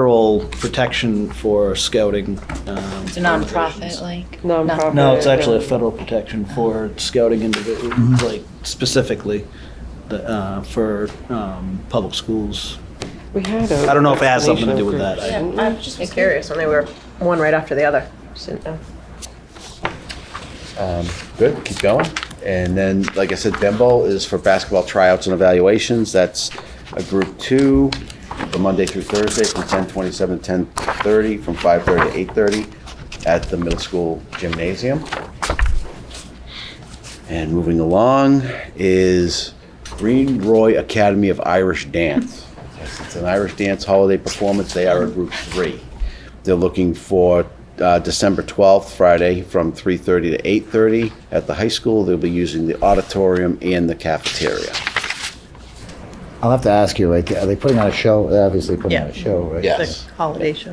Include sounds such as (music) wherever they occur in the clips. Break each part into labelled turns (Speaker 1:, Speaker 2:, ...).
Speaker 1: federal protection for scouting. um,
Speaker 2: It's a
Speaker 1: organizations.
Speaker 2: nonprofit, like?
Speaker 3: Nonprofit.
Speaker 1: No, it's actually a
Speaker 3: Yeah.
Speaker 1: federal protection for scouting individuals, like specifically the, uh, for um, public schools.
Speaker 3: We had a.
Speaker 1: I don't know if it has something to do with that.
Speaker 3: vaccination
Speaker 1: I-
Speaker 3: group, didn't we?
Speaker 4: I'm just curious when they were one right after the other.
Speaker 3: Just didn't know.
Speaker 5: Um, Good, keep going. And then, like I said, Bembo is for basketball tryouts and evaluations. That's a group two, from Monday through Thursday, from 10:27 to 10:30, from 5:30 to 8:30 at the middle school gymnasium. And moving along is Green Roy Academy of Irish Dance. It's an Irish dance holiday performance. They are a group three. They're looking for uh, December 12th, Friday, from 3:30 to 8:30 at the high school. They'll be using the auditorium and the cafeteria.
Speaker 6: I'll have to ask you, like, are they putting on a show? They're obviously putting on a
Speaker 4: Yeah.
Speaker 6: show, right?
Speaker 5: Yeah.
Speaker 4: The
Speaker 5: Yes.
Speaker 4: holiday show.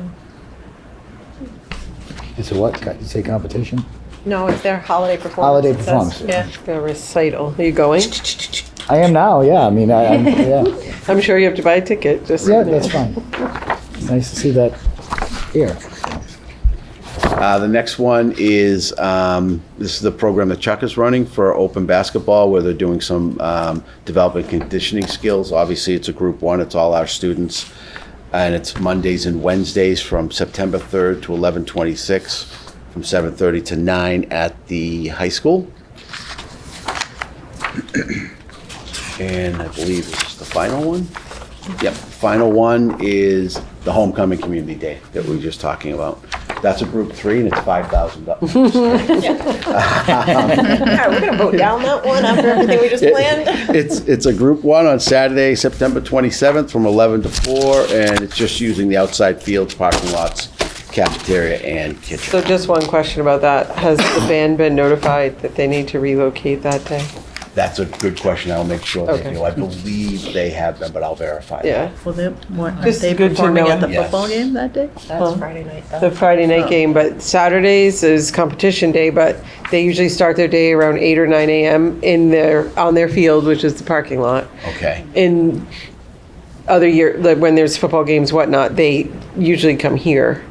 Speaker 6: It's a what? You say competition?
Speaker 4: No, it's their holiday performance.
Speaker 6: Holiday
Speaker 4: it says.
Speaker 6: performance.
Speaker 4: Yeah.
Speaker 3: A recital. Are you going?
Speaker 6: I am now, yeah. I mean, I, I'm, yeah.
Speaker 3: I'm sure you have to buy a ticket. Just
Speaker 6: Yeah, that's fine. It's nice to see that here.
Speaker 5: Uh, The next one is, um, this is the program that Chuck is running for open basketball, where they're doing some um, development conditioning skills. Obviously, it's a group one, it's all our students. And it's Mondays and Wednesdays from September 3rd to 11/26, from 7:30 to 9 at the high school. And I believe this is the final one. Yep, final one is the homecoming community day that we were just talking about. That's a group three and it's five thousand
Speaker 3: (laughs)
Speaker 5: dollars.
Speaker 4: Yeah, we're gonna vote down that one after everything we just planned.
Speaker 5: It's, it's a group one on Saturday, September twenty-seventh from eleven to four, and it's just using the outside fields, parking lots, cafeteria and
Speaker 3: So
Speaker 5: kitchen.
Speaker 3: just one question about that. Has the band been notified that they need to relocate that day?
Speaker 5: That's a good question. I'll make sure they
Speaker 3: Okay.
Speaker 5: do. I believe they have them, but I'll verify. that.
Speaker 3: Yeah.
Speaker 7: Well, they, weren't
Speaker 3: Just
Speaker 7: they
Speaker 3: good to
Speaker 7: performing
Speaker 3: know.
Speaker 7: at the
Speaker 5: Yes.
Speaker 7: football game that day?
Speaker 2: That's Friday night, though.
Speaker 3: The Friday
Speaker 4: Oh.
Speaker 3: night game, but Saturdays is competition day, but they usually start their day around eight or nine AM in their, on their field, which is the parking lot.
Speaker 5: Okay,
Speaker 3: in other year, like when there's football games, whatnot, they usually come here,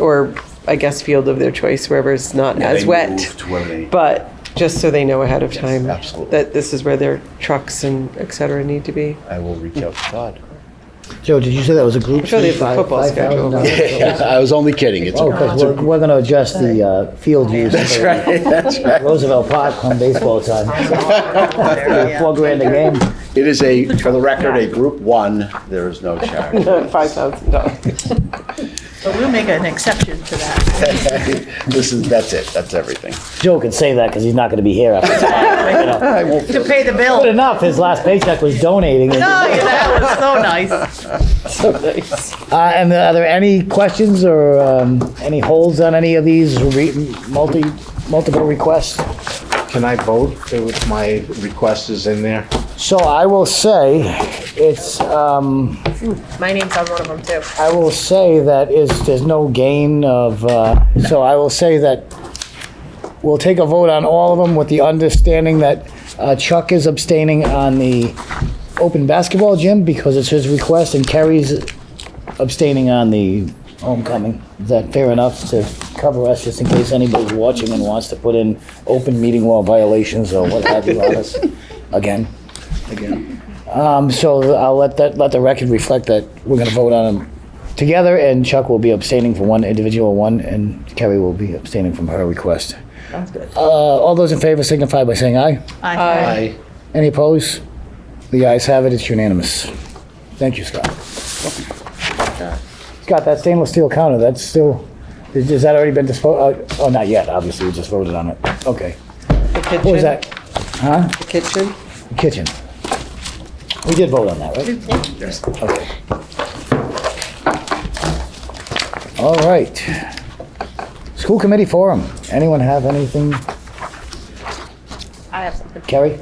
Speaker 3: or I guess field of their choice, wherever it's not
Speaker 5: Yeah,
Speaker 3: as
Speaker 5: they
Speaker 3: wet.
Speaker 5: move to where they-
Speaker 3: But just so they know ahead of time,
Speaker 5: absolutely.
Speaker 3: that this is where their trucks and et cetera need to be.
Speaker 5: I will reach out to Todd.
Speaker 6: Joe, did you say that was a group?
Speaker 3: sure they have the
Speaker 6: three, five-
Speaker 3: football schedule. (laughs)
Speaker 6: $5,000?
Speaker 5: I was only kidding. It's a
Speaker 6: Oh, because we're, we're gonna adjust the, uh, field use. That's right, that's right. Roosevelt Park, come
Speaker 3: (laughs)
Speaker 6: baseball time.
Speaker 3: Oh,
Speaker 6: Four grand a game.
Speaker 5: It is a, for the record, a group one, there is no charge.
Speaker 3: Five thousand dollars.
Speaker 7: But we'll make an exception to that.
Speaker 5: (laughs) This is, that's it, that's everything.
Speaker 6: Joe can say that because he's not gonna be here after
Speaker 3: (laughs)
Speaker 5: I won't
Speaker 7: To pay the
Speaker 6: Good
Speaker 7: bill.
Speaker 6: enough, his last paycheck was donating. it.
Speaker 7: Oh, yeah, that was so nice.
Speaker 6: Uh, and are there any questions or um, any holds on any of these re- multi multiple requests?
Speaker 8: Can I vote if my request is in there?
Speaker 6: So I will say, it's um,
Speaker 4: My name's on one of them too.
Speaker 6: I will say that is there's no gain of. Uh, so I will say that we'll take a vote on all of them with the understanding that uh, Chuck is abstaining on the open basketball gym because it's his request, and Kerry's abstaining on the homecoming. Is that fair enough to cover us, just in case anybody's watching and wants to put in open meeting law violations or what have you on us again? Again. Um, so I'll let that, let the record reflect that we're gonna vote on them together, and Chuck will be abstaining from one individual one, and Kerry will be abstaining from her request. Sounds good. Uh, all those in favor signify by saying aye.
Speaker 7: I
Speaker 8: I,
Speaker 6: Any opposed? The ayes have it, it's unanimous. Thank you, Scott. Scott, that stainless steel counter, that's still, is- has that already been disposed, oh, not yet, obviously, we just voted on it, okay.
Speaker 3: The kitchen.
Speaker 6: What was that? Huh?
Speaker 3: The kitchen.
Speaker 6: Kitchen. We did vote on that, right? Yes. Okay. All right. School committee forum, anyone have anything?
Speaker 4: I have something.
Speaker 6: Carrie?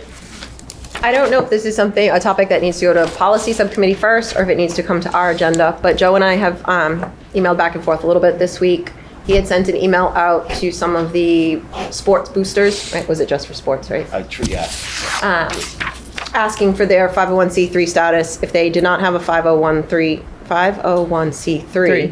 Speaker 4: I don't know if this is something, a topic that needs to go to policy subcommittee first, or if it needs to come to our agenda, but Joe and I have um, emailed back and forth a little bit this week. He had sent an email out to some of the sports boosters, right, was it just for sports, right?
Speaker 5: I, tr- yeah.
Speaker 4: oh asking for their 501c3 status if they did not have a 501c3 501c3.